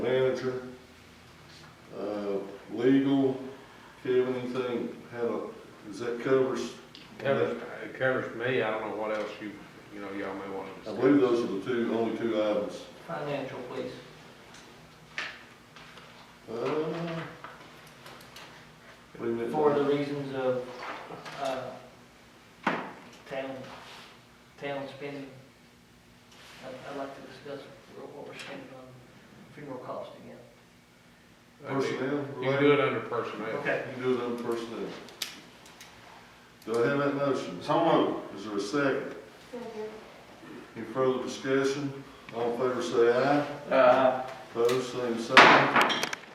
manager, uh, legal, Kevin, anything, had a, does that covers? Covers, it covers me, I don't know what else you, you know, y'all may want I to believe discuss. those are the two, only two items. Financial, please. Uh, wait a minute. For the reasons of, uh, town, town spending. I'd, I'd like to discuss what we're spending on funeral costs again. You Personnel can do related, it under personnel. you can do it on personnel. Do I have that motion? Is there a second? Any further discussion? All in favor say aye. Opposed, same sign.